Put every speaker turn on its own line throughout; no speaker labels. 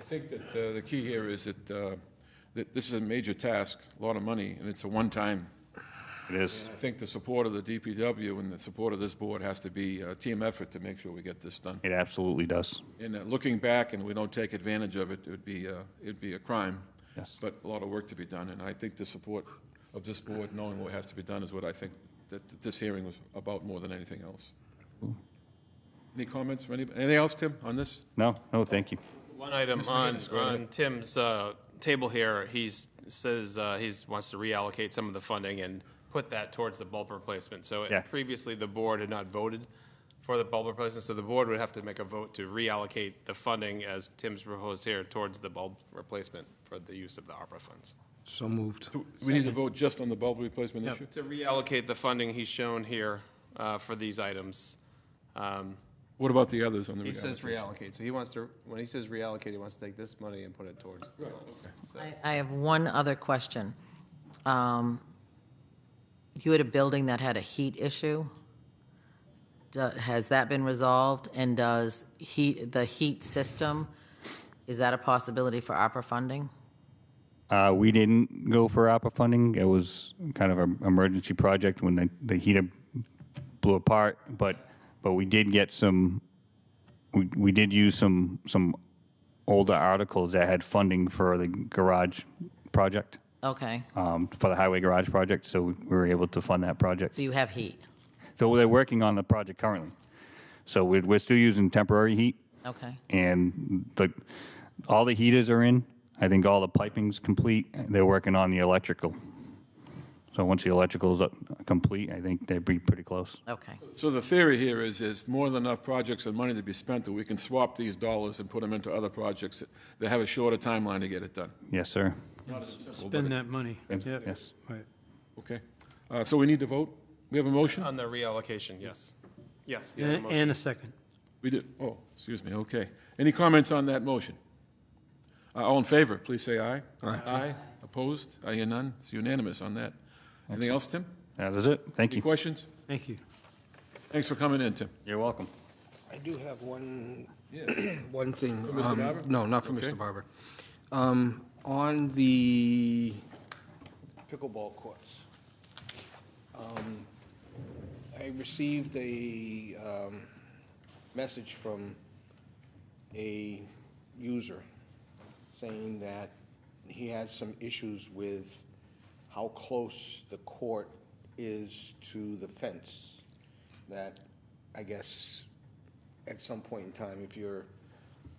think that uh, the key here is that, uh, that this is a major task, a lot of money, and it's a one-time.
It is.
I think the support of the DPW and the support of this board has to be a team effort to make sure we get this done.
It absolutely does.
And uh, looking back, and we don't take advantage of it, it would be, uh, it'd be a crime.
Yes.
But a lot of work to be done, and I think the support of this board, knowing what has to be done, is what I think that that this hearing was about more than anything else. Any comments, from anybody? anything else, Tim, on this?
No, no, thank you.
One item on, on Tim's uh, table here, he's, says uh, he's, wants to reallocate some of the funding and put that towards the bulb replacement. So it-
Yeah.
previously, the board had not voted for the bulb replacement, so the board would have to make a vote to reallocate the funding as Tim's proposed here towards the bulb replacement for the use of the ARPA funds.
So moved.
We need to vote just on the bulb replacement issue?
To reallocate the funding he's shown here uh, for these items, um,
What about the others on the
he says
reallocation?
reallocate, so he wants to, when he says reallocate, he wants to take this money and put it towards the bulbs. So-
I- I have one other question. Um, You had a building that had a heat issue. Do- Has that been resolved? And does heat, the heat system, is that a possibility for opera funding?
Uh, we didn't go for APA funding. It was kind of an emergency project when the, the heater blew apart, but, but we did get some, we, we did use some, some older articles that had funding for the garage project,
Okay,
um, for the highway garage project, so we were able to fund that project.
so you have heat.
So they're working on the project currently. So we're, we're still using temporary heat,
Okay,
and the all the heaters are in. I think all the piping's complete. They're working on the electrical. So once the electrical's up, complete, I think they'd be pretty close.
okay.
So the theory here is, is more than enough projects and money to be spent that we can swap these dollars and put them into other projects that- that have a shorter timeline to get it done,
Yes, sir.
Spend that money. Yep.
Yes.
Right.
okay? Uh, So we need to vote? We have a motion?
On the reallocation, yes. Yes. you have a
And
motion.
and a second.
We do, oh, excuse me, okay. Any comments on that motion? Uh, All in favor, please say aye. Aye. Aye, opposed? I hear none, it's unanimous on that. Anything else, Tim?
That is it. Thank
Any
you.
questions?
Thank you.
Thanks for coming in, Tim.
You're welcome.
I do have one
One thing.
Mr.
um,
Barber?
No, not for
Okay.
Mr. Barber. Um, On the pickleball courts, um, I received a um, message from a user saying that he has some issues with how close the court is to the fence. That, I guess, at some point in time, if you're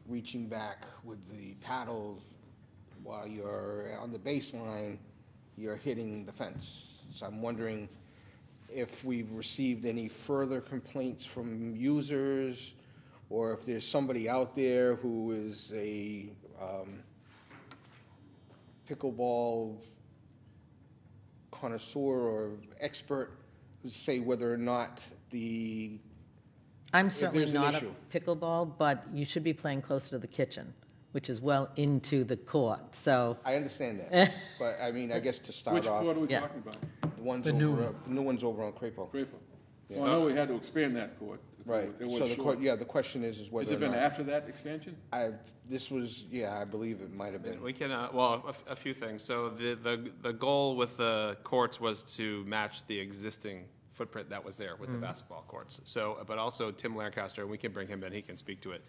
reaching back with the paddle while you're on the baseline, you're hitting the fence. So I'm wondering if we've received any further complaints from users, or if there's somebody out there who is a um, pickleball connoisseur or expert, who say whether or not the
I'm certainly
there's an
not a
issue.
pickleball, but you should be playing closer to the kitchen, which is well into the court, so.
I understand that, but I mean, I guess to start
Which
off,
court are we
Yeah.
talking about?
the ones
The new
over,
one.
uh, the new ones over on Crapo.
Crapo. Well, I know we had to expand that court.
Right,
It
so
was
the,
short.
que- yeah, the question is, is
Has
whether
it
or
been
not,
after that expansion?
I, this was, yeah, I believe it might have been.
We can, uh, well, a f- a few things. So the, the, the goal with the courts was to match the existing footprint that was there with
Mm.
the basketball courts. So, but also Tim Lancaster, we can bring him in, he can speak to it.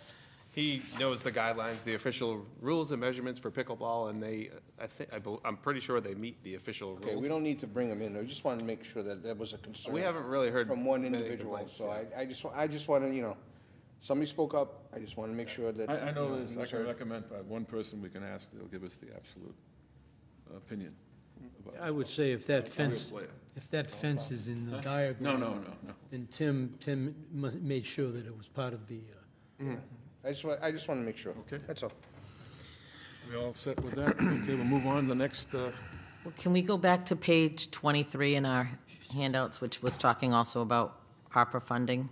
He knows the guidelines, the official rules and measurements for pickleball, and they, I think, I, bel- I'm pretty sure they meet the official rules.
Okay, we don't need to bring them in, I just wanted to make sure that that was a concern.
We haven't really heard
From one
many
individual,
complaints,
so
yeah.
I, I just, wa- I just wanna, you know, somebody spoke up, I just wanna make sure that.
I, I
you
know this,
he
I
was
can
heard.
recommend by one person we can ask, they'll give us the absolute opinion. about
I
this.
would say if that
Real
fence,
player.
if that fence is in the
No,
diagram.
no, no, no.
Then Tim, Tim mu- made sure that it was part of the, uh,
I just wa, I just wanna make sure.
Okay.
That's all.
We all set with that? Okay, we'll move on to the next, uh,
Well, Can we go back to page 23 in our handouts, which was talking also about ARPA funding?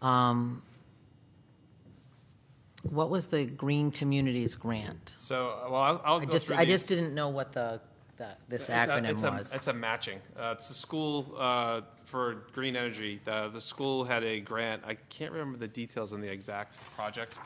Um, What was the Green Communities Grant?
So, well, I'll, I'll
I
go
just,
through
I
these.
just didn't know what the, the- this
It's a-
acronym
it's a-
was.
It's a matching. Uh, It's a school uh, for green energy. The, the school had a grant, I can't remember the details on the exact project,